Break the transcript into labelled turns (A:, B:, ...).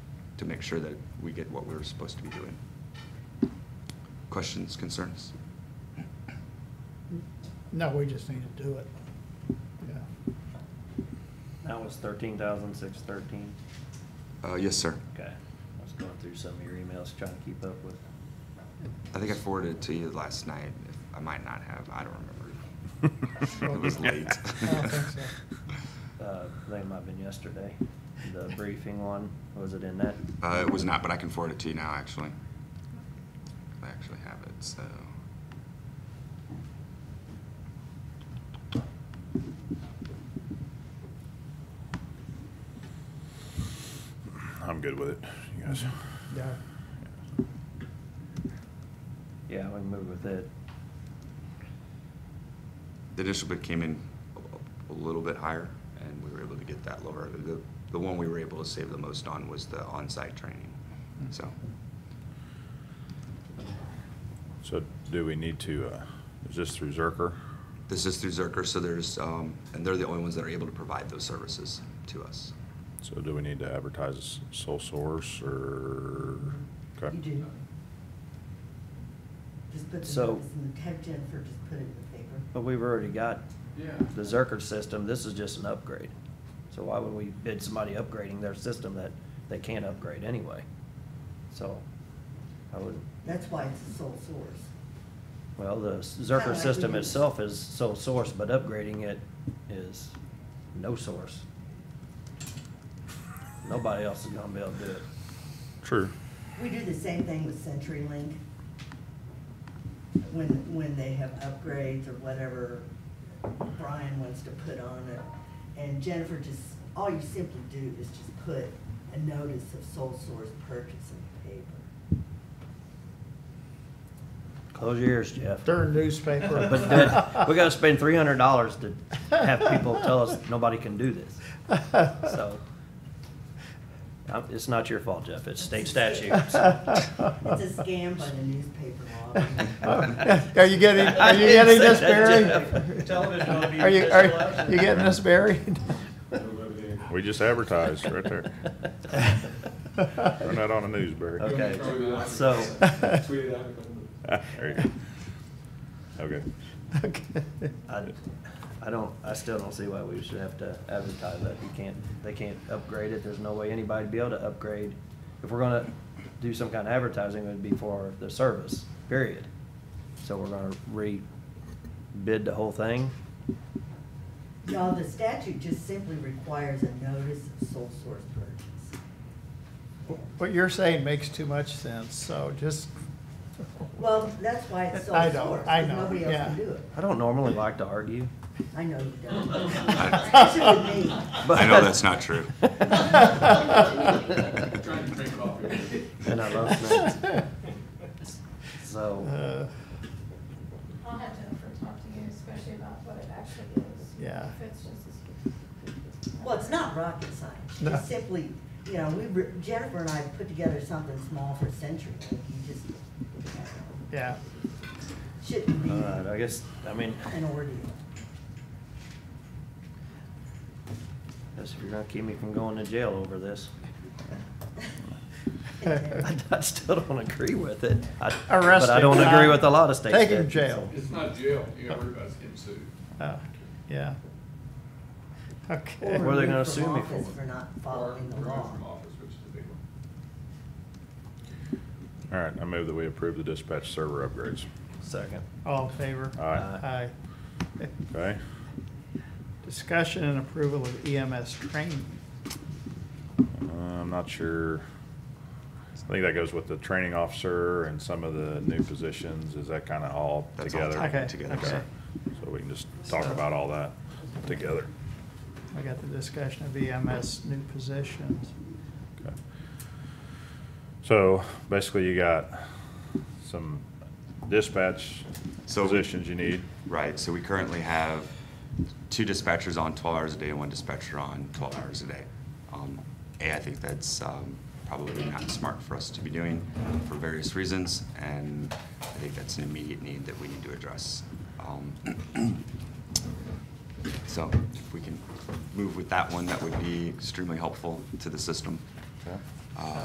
A: to make sure that we get what we're supposed to be doing. Questions, concerns?
B: No, we just need to do it. Yeah.
C: That was thirteen thousand six thirteen.
A: Uh, yes, sir.
C: Okay. I was going through some of your emails trying to keep up with.
A: I think I forwarded it to you last night. If- I might not have, I don't remember. It was late.
B: I
A: Oh,
B: don't think so.
C: Uh, I think it might have been yesterday. The briefing one, was it in that?
A: Uh, it was not, but I can forward it to you now, actually. I actually have it, so.
D: I'm good with it, you guys.
B: Yeah.
C: Yeah, we can move with it.
A: The initial bid came in a a little bit higher, and we were able to get that lower. The, the one we were able to save the most on was the on-site training, so.
D: So do we need to, uh, is this through Zerker?
A: This is through Zerker, so there's, um, and they're the only ones that are able to provide those services to us.
D: So do we need to advertise as sole source or? okay.
E: You do. Just put the
C: So-
E: notice in the, have Jennifer just put it in the paper.
C: But we've already got the Zerker system. This is just an upgrade. So why would we bid somebody upgrading their system that they can't upgrade anyway? So I would,
E: That's why it's a sole source.
C: well, the
E: Kinda
C: Zerker
E: like
C: system
E: we-
C: itself is sole source, but upgrading it is no source. Nobody else is gonna be able to do it.
D: True.
E: We do the same thing with CenturyLink. When, when they have upgrades or whatever Brian wants to put on it. And Jennifer just, all you simply do is just put a notice of sole source purchase in the paper.
C: Close your ears, Jeff.
B: They're a newspaper.
C: But that- we gotta spend three hundred dollars to have people tell us nobody can do this, so. um, It's not your fault, Jeff, it's state statute. so.
E: It's a scam by the newspaper law.
B: Are you getting,
C: I
B: are you
C: didn't
B: getting
C: say
B: this,
C: that,
B: Barry?
C: Jeff. Television ought to be
B: Are you,
C: official
B: are
C: election.
B: you getting this, Barry?
D: We just advertised right there. Run that on the news, Barry.
C: Okay, so,
F: Tweeted out.
D: There you go. Okay.
B: Okay.
C: I, I don't, I still don't see why we should have to advertise that, you can't, they can't upgrade it, there's no way anybody'd be able to upgrade. If we're gonna do some kind of advertising, it would be for the service, period. So we're gonna re-bid the whole thing?
E: No, the statute just simply requires a notice of sole source purchase.
B: What you're saying makes too much sense, so just.
E: Well, that's why it's sole
B: I
E: source.
B: know, I
E: 'cause
B: know,
E: Nobody else can
B: yeah.
E: do it.
C: I don't normally like to argue,
E: I know you don't.
A: I-
E: Especially with me.
C: but.
A: I know that's not true.
F: Trying to drink coffee.
C: And I love snacks. So,
B: Uh,
G: I'll have Jennifer talk to you, especially about what it actually is.
B: Yeah.
G: If it's just.
E: Well, it's not rocket science.
B: No.
E: It's simply, you know, we, re- Jennifer and I put together something small for Century. Like you just, you know,
B: Yeah,
E: shouldn't be
C: alright, uh, I guess, I mean,
E: an ordeal.
C: guess if you're gonna keep me from going to jail over this, I, I still don't agree with it. I-
B: Arrest
C: But I
B: him,
C: don't
B: Todd.
C: agree with a lot of state
B: Take him to
C: statutes.
B: jail.
F: It's not jail, you gotta worry about us getting sued.
C: Oh,
B: Uh, yeah.
E: Or
B: Okay.
C: What are they gonna
E: removed from
C: sue me
E: office
C: for?
E: For not
F: Or
E: following the
F: removed
E: law.
F: from office, which is a big one.
D: All right, I move that we approve the dispatch server upgrades.
C: Second. Uh,
B: All in favor?
D: Aye.
B: Aye.
D: Okay?
B: Discussion and approval of EMS training.
D: Uh, I'm not sure. I think that goes with the training officer and some of the new positions. Is that kind of all
A: That's all
D: together?
A: tied
B: Okay,
A: together.
B: okay.
D: So we can just talk about all that together.
B: I got the discussion of EMS new positions.
D: Okay. So basically you got some dispatch
A: So we-
D: positions you need.
A: Right, so we currently have two dispatchers on twelve hours a day and one dispatcher on twelve hours a day. Um, A, I think that's um, probably not smart for us to be doing for various reasons, and I think that's an immediate need that we need to address. Um, So if we can move with that one, that would be extremely helpful to the system.
D: Okay.
A: Uh,